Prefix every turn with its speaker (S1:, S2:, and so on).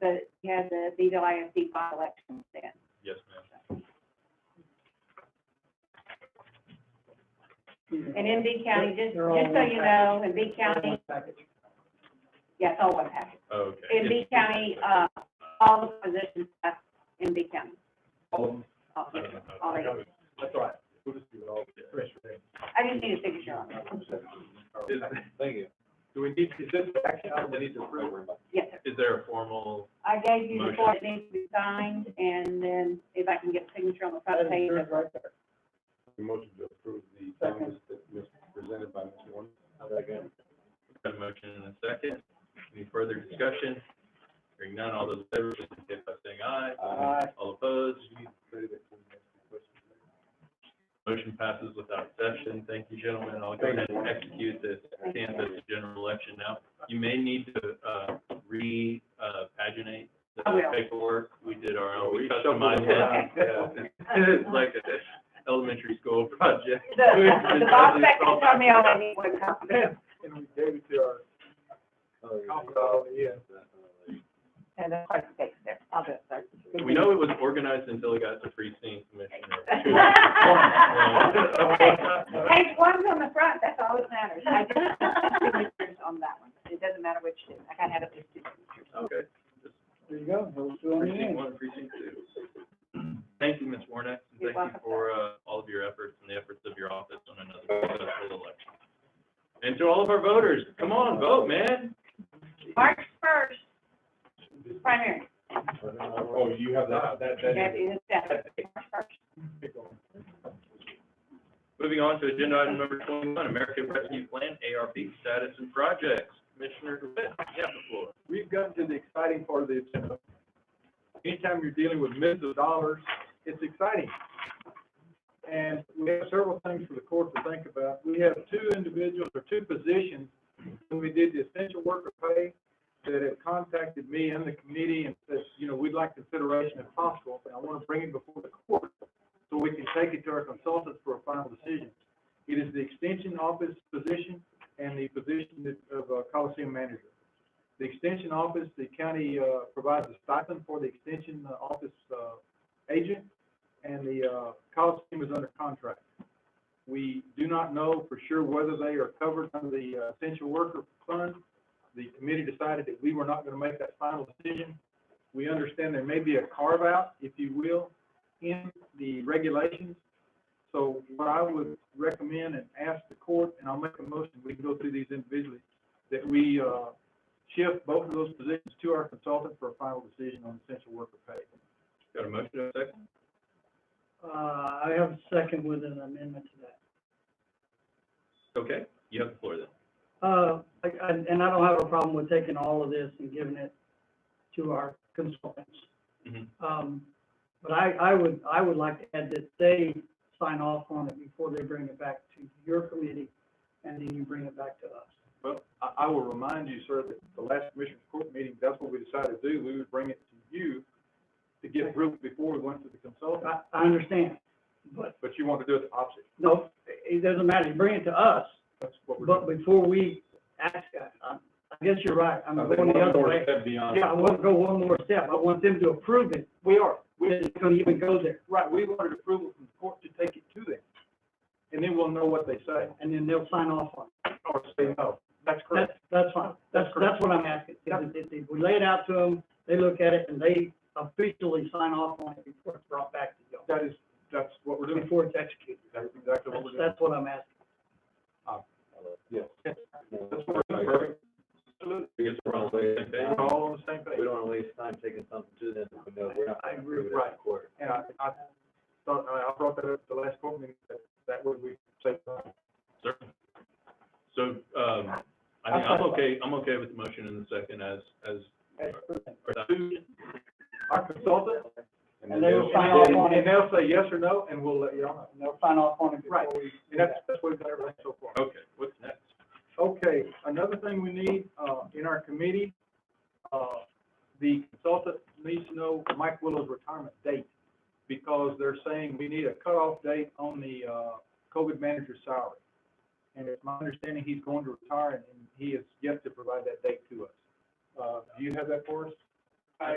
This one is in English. S1: so he has a Vito ISD by election then.
S2: Yes, ma'am.
S1: And in B County, just, just
S3: They're all
S1: so
S3: one
S1: you
S3: package.
S1: know, in B
S3: One
S1: County,
S3: package.
S1: yes, all one package.
S2: Oh, Okay.
S1: In B County, uh, all the positions are in B County,
S2: All of them.
S1: all,
S2: I don't know.
S1: all eight.
S3: That's right.
S2: We'll just do it all. together.
S1: I just need a signature on it.
S2: Thank you. Do we need, is this action item we need to approve?
S1: Yes, sir.
S2: Is there a formal,
S1: I gave you the
S2: Motion.
S1: form that needs to be signed, and then if I can get a signature on the front page of
S3: right there.
S4: Motion to approve the comments that was presented by Mr. Warren. Second.
S2: got a motion in a second? Any further discussion? Hearing none, all those in favor, please indicate by saying aye.
S3: Aye.
S2: All opposed? Motion passes without exception. Thank you, gentlemen. I'll go ahead and execute this Kansas general election now. You may need to, uh, re, uh, paginate the
S1: I will.
S2: paperwork. We did our own, we
S4: Oh, shuffled
S2: customized
S4: it
S1: around,
S2: it. It's like an elementary school project.
S1: The, the boss section told me I only need one copy.
S3: And we gave it to our
S4: Oh,
S3: confidant, yeah.
S1: And the price tag's there, I'll do it, sir.
S2: We know it was organized until it got to free scene commissioner.
S1: Page one's on the front, that's all that matters. I just have signatures on that one. It doesn't matter which two. I gotta have at least two signatures.
S2: Okay.
S3: There you go. Those two on the
S2: Precinct
S3: end.
S2: one, precinct two. Thank you, Ms. Warnock,
S1: You're
S2: and thank you
S1: welcome.
S2: for, uh, all of your efforts and the efforts of your office on another successful election. And to all of our voters, come on, vote, man.
S1: March first, primary,
S4: Oh, you have that, that,
S1: that
S4: that.
S1: is that, March first.
S2: Moving on to agenda item number twenty-one, American Rescue Plan, ARP status and projects. Commissioner DeWitt, you have the floor.
S4: We've gotten to the exciting part of the agenda. Anytime you're dealing with millions of dollars,
S3: it's exciting. And we have several things for the court to think about. We have two individuals or two positions when we did the essential worker pay that have contacted me and the committee and said, you know, we'd like consideration if possible, but I want to bring it before the court so we can take it to our consultants for a final decision. It is the extension office position and the position that- of uh, Coliseum manager. The extension office, the county, uh, provides a stipend for the extension uh, office, uh, agent, and the, uh, Coliseum is under contract. We do not know for sure whether they are covered under the uh, essential worker fund. The committee decided that we were not gonna make that final decision. We understand there may be a carve-out, if you will, in the regulations. So what I would recommend and ask the court, and I'll make a motion, we can go through these individually, that we, uh, shift both of those positions to our consultant for a final decision on essential worker pay.
S2: Got a motion, and a second?
S5: Uh, I have a second with an amendment to that.
S2: Okay, you have the floor then.
S5: Uh, I- I- and I don't have a problem with taking all of this and giving it to our consultants.
S2: Mhm.
S5: Um, but I, I would, I would like to add that they sign off on it before they bring it back to your committee, and then you bring it back to us.
S3: Well, I, I will remind you, sir, that the last commissioners court meeting, that's what we decided to do. We would bring it to you to get approved before we went to the consultant,
S5: I, I understand, but
S3: but you want to do it the opposite.
S5: no, it doesn't matter, you bring it to us,
S3: That's what we're
S5: but
S3: doing.
S5: before we ask, I, I guess you're right, I'm
S4: I think
S5: going
S4: one
S5: the other
S4: more
S5: way.
S4: step beyond.
S5: Yeah, I want to go one more step, I want them to approve it,
S3: We are, we,
S5: it's gonna even go there.
S3: right, we wanted approval from the court to take it to them. And then we'll know what they say
S5: and then they'll sign off on it.
S3: or say no. That's
S5: That's,
S3: correct.
S5: that's fine. That's, that's what I'm asking. If, if- if we lay it out to them, they look at it and they officially sign off on it before it's brought back to y'all,
S3: That is, that's what we're doing.
S5: before it's executed.
S3: That's exactly
S5: That's,
S3: what we're doing.
S5: that's what I'm asking.
S4: Yes.
S3: That's what we're doing. Perfect. Absolutely.
S2: Because Mm-hmm. we're all on the same page.
S3: We're all on the same page.
S6: We don't wanna waste time taking something to them if we know we're not
S3: I
S6: gonna
S3: agree,
S6: approve it at
S3: right.
S6: the court.
S3: And I, I thought, uh, I I brought that up at the last court meeting, that, that would uh, we say.
S2: Certainly. So, um, I mean, I'm okay, I'm okay with the motion in the second as, as, or that-
S3: Our consultant,
S5: And they will
S4: they'll-
S5: sign off
S3: And-
S5: on
S3: And
S5: it,
S3: they'll say yes or no, and we'll let you all know.
S5: and they'll sign off on it before
S3: Right.
S5: we.
S3: And that's, that's what we've done everything so far.
S2: okay, what's next?
S3: Okay, another thing we need, uh, in our committee, uh, the consultant needs to know Mike Willow's retirement date, because they're saying we need a cutoff date on the, uh, COVID manager salary. And it's my understanding he's going to retire, and he is yet to provide that date to us. Uh, do you have that for us?